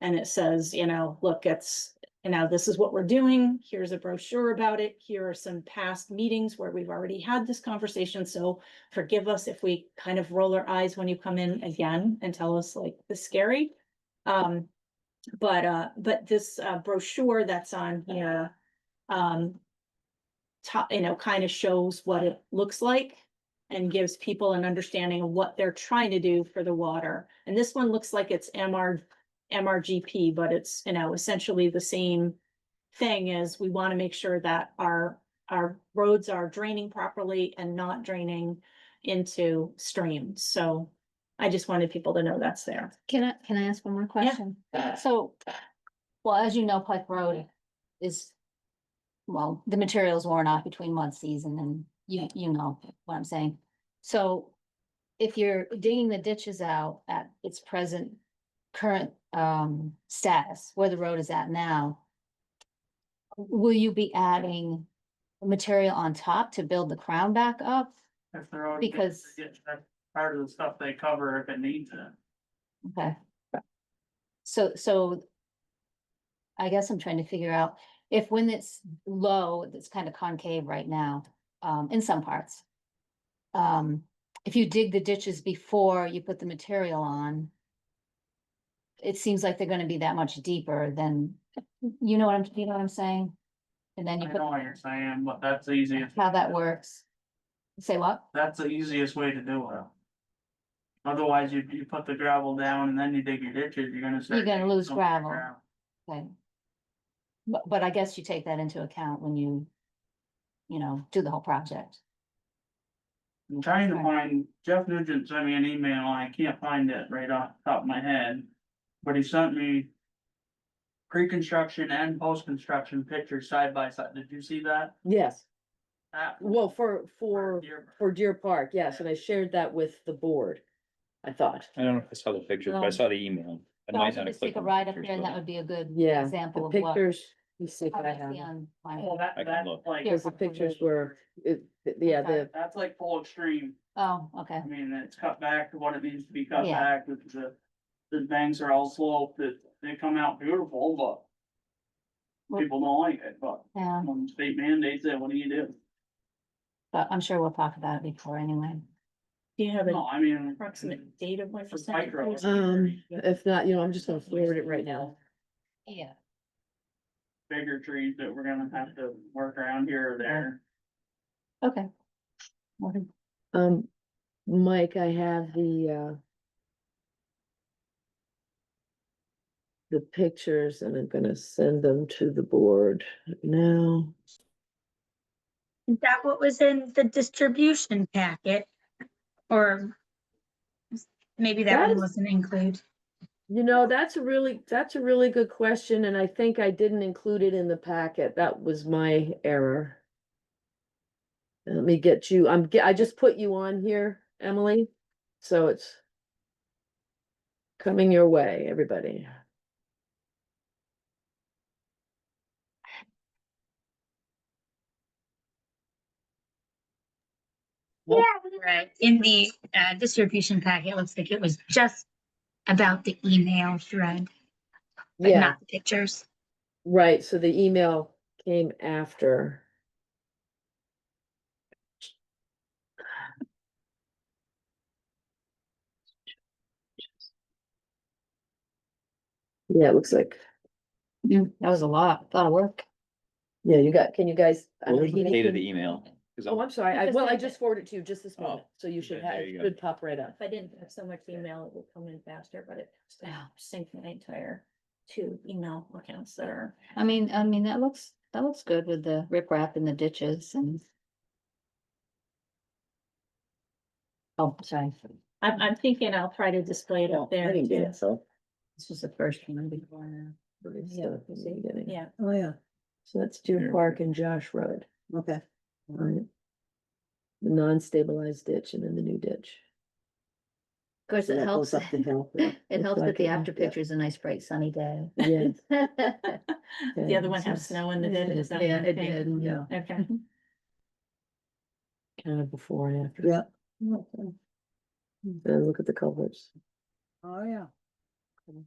And it says, you know, look, it's, you know, this is what we're doing. Here's a brochure about it. Here are some past meetings where we've already had this conversation. So forgive us if we kind of roll our eyes when you come in again and tell us like this is scary. Um, but, uh, but this uh, brochure that's on here, um, top, you know, kind of shows what it looks like and gives people an understanding of what they're trying to do for the water. And this one looks like it's MR, MRGP, but it's, you know, essentially the same thing is we want to make sure that our, our roads are draining properly and not draining into streams. So I just wanted people to know that's there. Can I, can I ask one more question? So, well, as you know, Pike Road is, well, the materials worn off between mud season and you, you know what I'm saying. So if you're digging the ditches out at its present current um status, where the road is at now, will you be adding material on top to build the crown back up? If they're already. Because, Part of the stuff they cover if it needs it. okay. So, so I guess I'm trying to figure out if when it's low, it's kind of concave right now, um, in some parts. Um, if you dig the ditches before you put the material on, it seems like they're gonna be that much deeper than, you know what I'm, you know what I'm saying? And then you I know what you're put, saying, but that's the easiest, how that works. Say what? that's the easiest way to do it. Otherwise, you, you put the gravel down and then you dig your ditches, you're gonna. start You're gonna digging lose so much gravel. Okay. But, but I guess you take that into account when you, you know, do the whole project. I'm trying to Okay. find, Jeff Nugent sent me an email, and I can't find it right off the top of my head, but he sent me. Pre-construction and post-construction pictures side by side, did you see that? Yes, That- well, for, for, Deer- for Deer Park, yes, and I shared that with the board, I thought. I don't know if I saw the picture, but I No. saw the email. I So might I should not have just take clicked a on the ride up pictures, there and but that would be a good Yeah, example the of what. pictures, you see if I I might have, see them. on my- Well, Oh, that, I can that's look. like. Here. because the pictures were, it, th- yeah, Okay. the, That's like full extreme, Oh, okay, I mean, it's cut back to what it needs to be cut Yeah. back, with the, the bangs are all sloped, that they come out beautiful, but. Well- People don't like it, but yeah, when the state mandates it, what do you do? but I'm sure we'll talk about it before anyway. Do you have an No, I mean. approximate date of when For percent? micro. goes? um, if not, you know, I'm just gonna forward it right now. Yeah. Bigger trees that we're gonna have to work around here or there. Okay. Um, Mike, I have the, uh, the pictures and I'm gonna send them to the board now. Is that what was in the distribution packet? Or maybe that That one is- wasn't included. You know, that's a really, that's a really good question, and I think I didn't include it in the packet. That was my error. And Let me get you, I'm, ge- I just put you on here, Emily, so it's coming your way, everybody. Right, in the uh, distribution packet, it looks like it was just about the email thread, but Yeah, not the pictures. right, so the email came after. Yeah, it looks like, That was a lot, a lot of work. yeah, you got, can you guys? I What know was he the needs date to- of the email? 'Cause Oh, I'm- I'm sorry. I, just well, I sent it. just forwarded to you just this Oh, moment, so you should okay, have, there it you go. should pop right up. If I didn't have so much email, it would come in faster, but it Yeah. synced my entire two email accounts that are. I mean, I mean, that looks, that looks good with the riprap and the ditches and. Oh, sorry, I'm, I'm thinking I'll try to display Oh, it up there. too. so. this was the first one before now. Yeah, Yeah, oh, yeah. So that's Deer There. Park and Josh Road. Okay. Alright. The non-stabilized ditch and then the new ditch. Of course, it helps, it helps that the after picture is a nice bright sunny day. Yeah. the other one had snow in the ditch. is that Yeah, it okay? did, yeah. Okay. Kind of before and after. Yeah. And look at the colors. Oh, yeah.